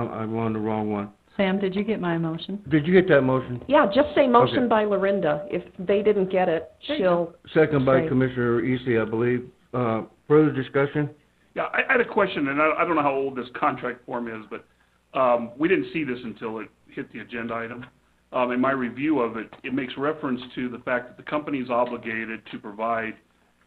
I'm, I'm on the wrong one. Sam, did you get my motion? Did you get that motion? Yeah, just say motion by Lorinda. If they didn't get it, she'll, Second by Right. Commissioner Eastley, I believe. Uh, further discussion? Yeah, I, I had a question, and I, I don't know how old this contract form is, but, um, we didn't see this until it hit the agenda item. Um, in my review of it, it makes reference to the fact that the company is obligated to provide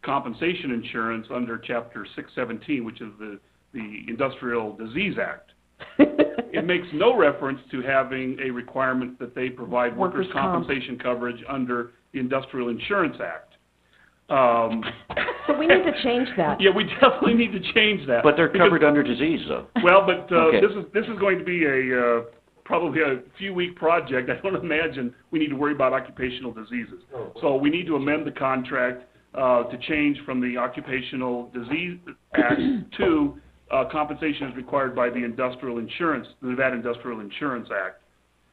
compensation insurance under chapter six seventeen, which is the, the Industrial Disease Act. It makes no reference to having a requirement that they provide workers' Workers' comp. compensation coverage under the Industrial Insurance Act. Um, so we need to change that. yeah, we definitely need to change that. But they're Because- covered under disease, though. Well, but, uh, Okay. this is, this is going to be a, uh, probably a few-week project. I don't imagine we need to worry about occupational diseases. So we need to amend the contract, uh, to change from the Occupational Disease Act to, uh, compensation is required by the Industrial Insurance, the Nevada Industrial Insurance Act.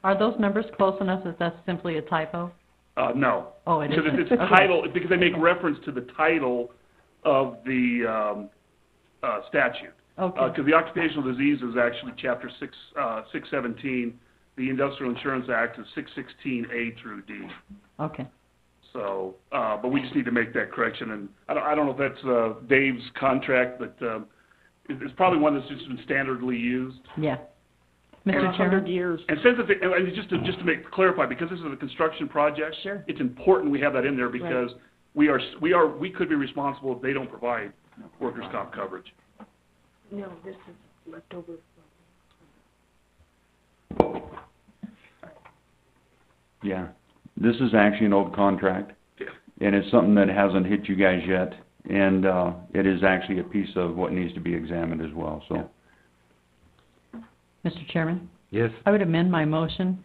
Are those numbers close enough that that's simply a typo? Uh, no. Oh, it Because isn't. it's, it's Okay. title, because they make reference to the title of the, um, uh, statute. Okay, Because the occupational disease is actually chapter six, uh, six seventeen, the industrial insurance act is six sixteen A through D. okay. So, uh, but we just need to make that correction, and I don't, I don't know if that's, uh, Dave's contract, but, um, it- it's probably one that's just been standardly used. Yeah. For Mr. a hundred Chairman? years. And since it's, and it's just to, just to make, clarify, because this is a construction project. Sure. It's important we have that in there because we are, s- we are, we could be responsible if they don't provide workers' comp coverage. No, this is leftover. Yeah, this is actually an old contract. Yeah. And it's something that hasn't hit you guys yet, and, uh, it is actually a piece of what needs to be examined as well, so. Mr. Chairman? Yes. I would amend my motion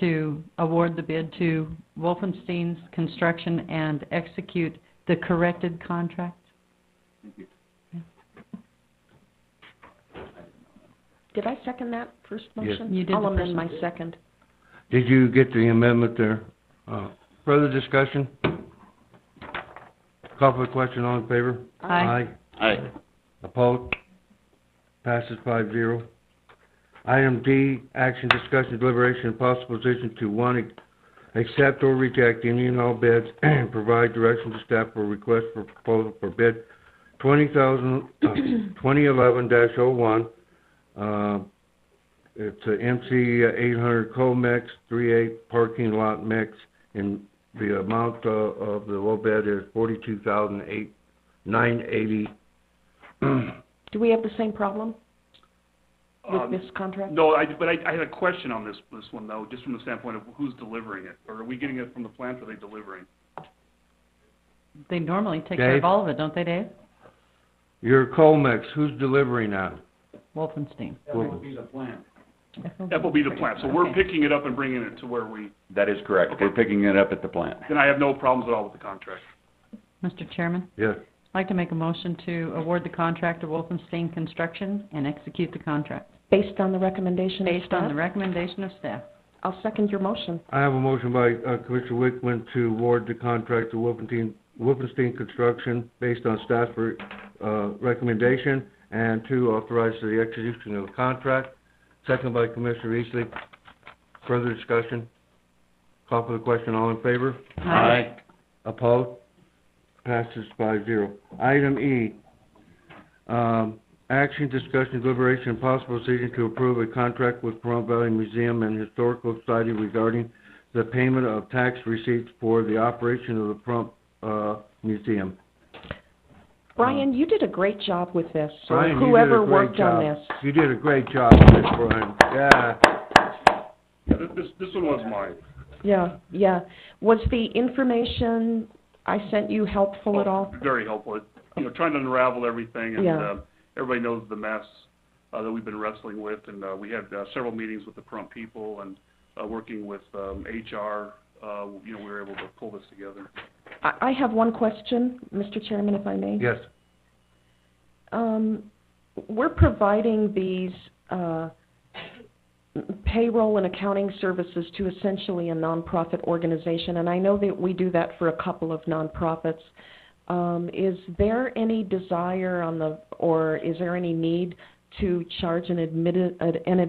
to award the bid to Wolfenstein's Construction and execute the corrected contract. Did I second that first Yes. motion? You did I'll the amend first my one. second. Did you get the amendment there? Uh, further discussion? Call for the question, all in favor? Aye. I, Opposed? Passes five zero. Item D, action, discussion, deliberation, and possible decision to one, accept or reject any and all bids and provide direction to staff for request for proposal for bid twenty thousand, uh, twenty eleven dash oh one. Uh, it's a MC eight hundred co-mix, three eight parking lot mix, and the amount, uh, of the low bid is forty-two thousand eight, nine eighty Do we have the same problem with Um, this contract? No, I, but I, I had a question on this, this one though, just from the standpoint of who's delivering it, or are we getting it from the plant, or are they delivering? They normally take care Dave? of all of it, don't they, Dave? Your Colmex, who's delivering that? Wolfenstein. That will be the plant, so we're Okay. picking it up and bringing it to where we, That is correct, we're picking it up at the plant. then I have no problems at all with the contract. Mr. Chairman, Yes. I'd like to make a motion to award the contract to Wolfenstein Construction and execute the contract Based on the recommendation of based on the staff? recommendation of staff. I'll second your motion. I have a motion by uh, Commissioner Wickman to award the contract to Wolfenstein, Wolfenstein Construction based on staff re- uh, recommendation and to authorize the execution of the contract. Second by Commissioner Eastley. Further discussion? Call for the question, all in favor? I, Opposed? Passes five zero. Item E, um, action, discussion, deliberation, and possible decision to approve a contract with Pahrump Valley Museum and Historical Society regarding the payment of tax receipts for the operation of the Pahrump, uh, Museum. Brian, you did a great job with this, or Brian, you did a whoever great worked job. on this. You did a great job, Miss Brian. Yeah. This, this, this one was mine. Yeah, yeah. Was the information I sent you helpful at all? Very helpful, It- you know, trying to unravel everything, and, Yeah. uh, everybody knows the mess, uh, that we've been wrestling with, and, uh, we had, uh, several meetings with the Pahrump people, and, uh, working with, um, HR, uh, you know, we were able to pull this together. I, I have one question, Mr. Chairman, if I may. Yes. Um, we're providing these, uh, payroll and accounting services to essentially a nonprofit organization, and I know that we do that for a couple of nonprofits. Um, is there any desire on the, or is there any need to charge an admitted, an